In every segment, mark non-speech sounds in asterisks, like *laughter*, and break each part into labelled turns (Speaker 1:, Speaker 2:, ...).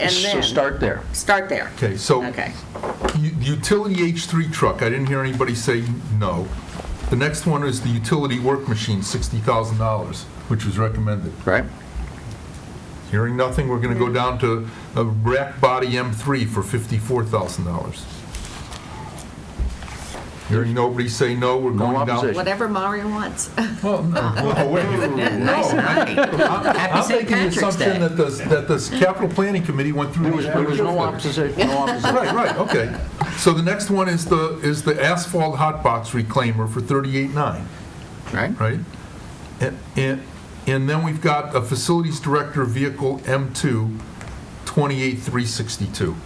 Speaker 1: and
Speaker 2: So
Speaker 1: then.
Speaker 2: start there.
Speaker 1: Start there.
Speaker 3: Okay, so
Speaker 1: Okay.
Speaker 3: u- utility H3 truck, I didn't hear anybody say no. The next one is the utility work machine, $60,000, which was recommended.
Speaker 2: right?
Speaker 3: Hearing nothing, we're
Speaker 1: Mm.
Speaker 3: going to go down to a rack body M3 for $54,000. Hearing
Speaker 1: Mm.
Speaker 3: nobody say no, we're
Speaker 2: No
Speaker 3: going down.
Speaker 2: opposition.
Speaker 1: Whatever Mario wants. *laughs*
Speaker 3: Well, no, no, wait.
Speaker 1: Nice
Speaker 3: No,
Speaker 1: night.
Speaker 3: I'm
Speaker 1: St.
Speaker 3: making the
Speaker 1: Patrick's
Speaker 3: assumption
Speaker 1: Day.
Speaker 3: that the, that the capital planning committee went through.
Speaker 2: There was,
Speaker 3: these
Speaker 2: there was no
Speaker 3: pretty quickly.
Speaker 2: opposition,
Speaker 1: *laughs*
Speaker 2: no opposition.
Speaker 3: Right, right, okay. So the next one is the, is the asphalt hot box reclaimer for 38.9,
Speaker 2: Right?
Speaker 3: right? And, and, and then we've got a facilities director vehicle M2, 28,362.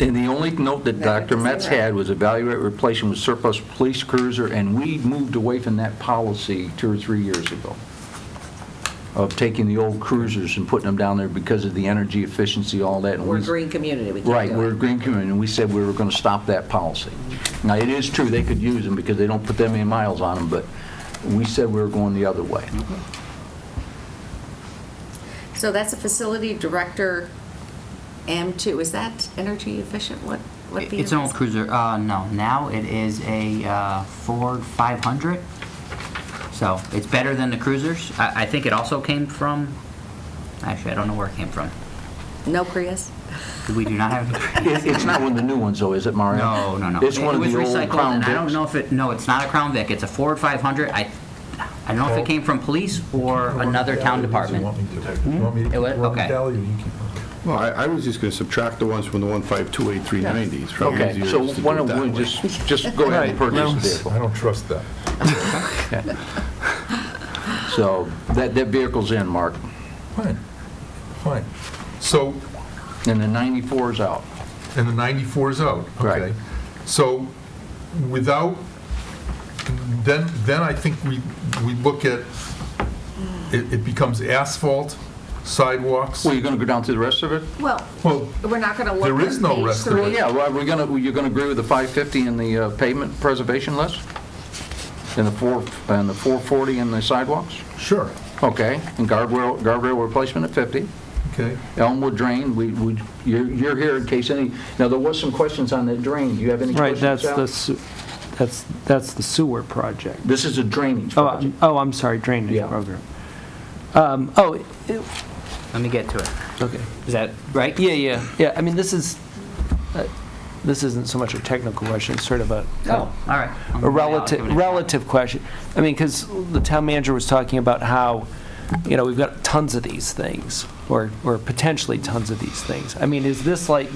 Speaker 2: And the only note that
Speaker 1: That
Speaker 2: Dr.
Speaker 1: doesn't
Speaker 2: Metz
Speaker 1: matter.
Speaker 2: had was evaluate replacement with surplus police cruiser, and we moved away from that policy two or three years ago of taking the old cruisers and putting them down there because of the energy efficiency, all that. and
Speaker 1: We're a
Speaker 2: we-
Speaker 1: green community. We can't
Speaker 2: Right,
Speaker 1: do it.
Speaker 2: we're a green community, and we said we were going to stop that policy. Now, it is true, they could use them because they don't put that many miles on them, but we said we were going the other way.
Speaker 1: So that's a facility director M2. Is that energy efficient? What, what vehicle?
Speaker 4: It's an old cruiser, uh, no, now it is a uh, Ford 500, so it's better than the cruisers. I, I think it also came from, actually, I don't know where it came from.
Speaker 1: No Prius?
Speaker 4: We do
Speaker 2: *laughs*
Speaker 4: not have,
Speaker 2: It- It's not one of the new ones, though, is it, Mario?
Speaker 4: no, no, no.
Speaker 2: It's one of the
Speaker 4: It was
Speaker 2: old
Speaker 4: recycled,
Speaker 2: Crown
Speaker 4: and I
Speaker 2: Vics.
Speaker 4: don't know if it, no, it's not a Crown Vic, it's a Ford 500. I, I don't know if it came from police or another town
Speaker 3: You want
Speaker 4: department.
Speaker 3: me to- you want me to
Speaker 4: It was-
Speaker 3: run the
Speaker 4: okay.
Speaker 3: tally or you keep-
Speaker 5: Well, I, I was just going to subtract the ones from the 1528390s. Probably
Speaker 2: Okay,
Speaker 5: easier
Speaker 2: so
Speaker 5: just to
Speaker 2: why
Speaker 5: do
Speaker 2: don't
Speaker 5: it that
Speaker 2: we
Speaker 5: way.
Speaker 2: just, just go ahead and purchase the vehicle?
Speaker 3: I don't trust that.
Speaker 2: So that, that vehicle's in, Mark,
Speaker 3: Fine, fine. So
Speaker 2: and the 94's out.
Speaker 3: And the 94 is out?
Speaker 2: Right.
Speaker 3: Okay. So without, then, then I think we, we look at, it, it becomes asphalt, sidewalks.
Speaker 2: Well, you're going to go down through the rest of it?
Speaker 1: Well,
Speaker 3: Well,
Speaker 1: we're not going to look
Speaker 3: There is
Speaker 1: at
Speaker 3: no
Speaker 1: page
Speaker 3: rest of
Speaker 2: Well,
Speaker 1: three.
Speaker 2: yeah, well, we're going to, you're going to agree with the 550 and the uh, pavement preservation list? And the 4, and the 440 and the sidewalks?
Speaker 3: sure,
Speaker 2: Okay, and guardrail, guardrail replacement at 50.
Speaker 3: okay.
Speaker 2: Elmwood drain, we, we, you're, you're here in case any, now, there was some questions on that drain. Do you have any
Speaker 6: Right,
Speaker 2: questions,
Speaker 6: that's
Speaker 2: Al?
Speaker 6: the, su- that's, that's the sewer project.
Speaker 2: This is a drainage
Speaker 6: Oh,
Speaker 2: project.
Speaker 6: I'm- oh, I'm sorry, drainage
Speaker 2: Yeah.
Speaker 6: program. Um, Oh, it-
Speaker 4: Let me get to it.
Speaker 6: okay,
Speaker 4: Is that right?
Speaker 6: yeah, yeah, yeah, I mean, this is, uh, this isn't so much a technical question, it's sort of a
Speaker 4: Oh, all right.
Speaker 6: a relative, relative question. I mean, because the town manager was talking about how, you know, we've got tons of these things, or, or potentially tons of these things. I mean, is this like,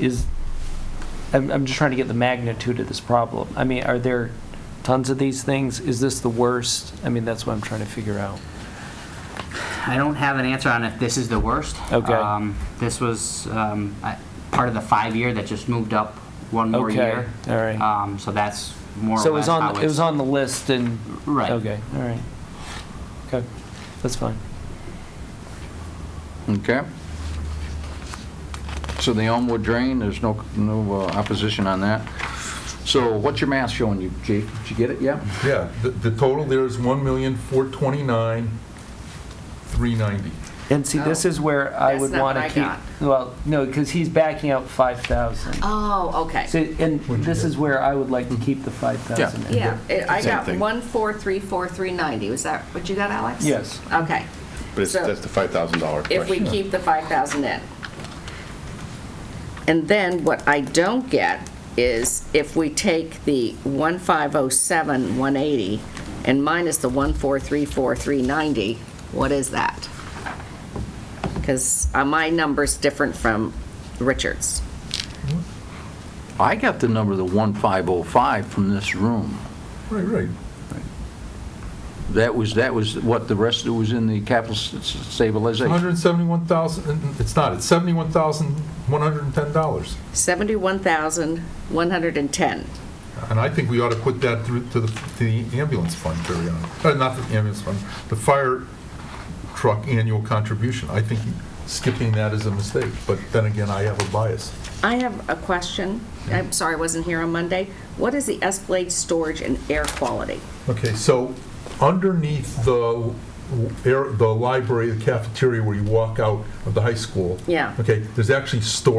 Speaker 6: is, I'm, I'm just trying to get the magnitude of this problem. I mean, are there tons of these things? Is this the worst? I mean, that's what I'm trying to figure out.
Speaker 4: I don't have an answer on if this is the worst.
Speaker 6: Okay.
Speaker 4: Um, This was um, I- part of the five-year that just moved up one more
Speaker 6: Okay,
Speaker 4: year.
Speaker 6: all right.
Speaker 4: Um, So that's more
Speaker 6: So
Speaker 4: or
Speaker 6: it
Speaker 4: less
Speaker 6: was
Speaker 4: how
Speaker 6: on,
Speaker 4: it's...
Speaker 6: it was on the list and,
Speaker 4: Right.
Speaker 6: okay, all right. Okay, that's fine.
Speaker 2: Okay. So the Elmwood drain, there's no, no uh, opposition on that. So what's your math showing you, Chief? Did you get it, yeah?
Speaker 3: Yeah, the, the total there is 1,429,390.
Speaker 6: And see, this
Speaker 1: Oh.
Speaker 6: is where I
Speaker 1: That's
Speaker 6: would
Speaker 1: not what
Speaker 6: want
Speaker 1: I
Speaker 6: to keep,
Speaker 1: got.
Speaker 6: well, no, because he's backing out 5,000.
Speaker 1: Oh, okay.
Speaker 6: So, and
Speaker 3: What'd you
Speaker 6: this
Speaker 3: get? Mm-hmm.
Speaker 6: is where I would like to keep the 5,000. in.
Speaker 1: Yeah, it- I
Speaker 5: Same
Speaker 1: got
Speaker 5: thing.
Speaker 1: 1434390. Was that what you got, Alex?
Speaker 6: Yes.
Speaker 1: Okay.
Speaker 5: But it's,
Speaker 1: So-
Speaker 5: that's the $5,000 question.
Speaker 1: if we keep the 5,000 in. And then what I don't get is if we take the 1507, 180 and minus the 1434, 390, what is that? Because my number's different from Richard's.
Speaker 2: I got the number, the 1505 from this room.
Speaker 3: Right, right.
Speaker 2: That was, that was what the rest of it was in the capital s- s- stabilization.
Speaker 3: 171,000, it's not, it's $71,110.
Speaker 1: 71,110.
Speaker 3: And I think we ought to put that through to the, to the ambulance fund, carry on, Uh, not the ambulance fund, the fire truck annual contribution. I think skipping that is a mistake, but then again, I have a bias.
Speaker 1: I have a question. I'm sorry I wasn't here on Monday. What is the Escalade storage and air quality?
Speaker 3: Okay, so underneath the air- the library, the cafeteria where you walk out of the high school.
Speaker 1: Yeah.
Speaker 3: Okay, there's actually stores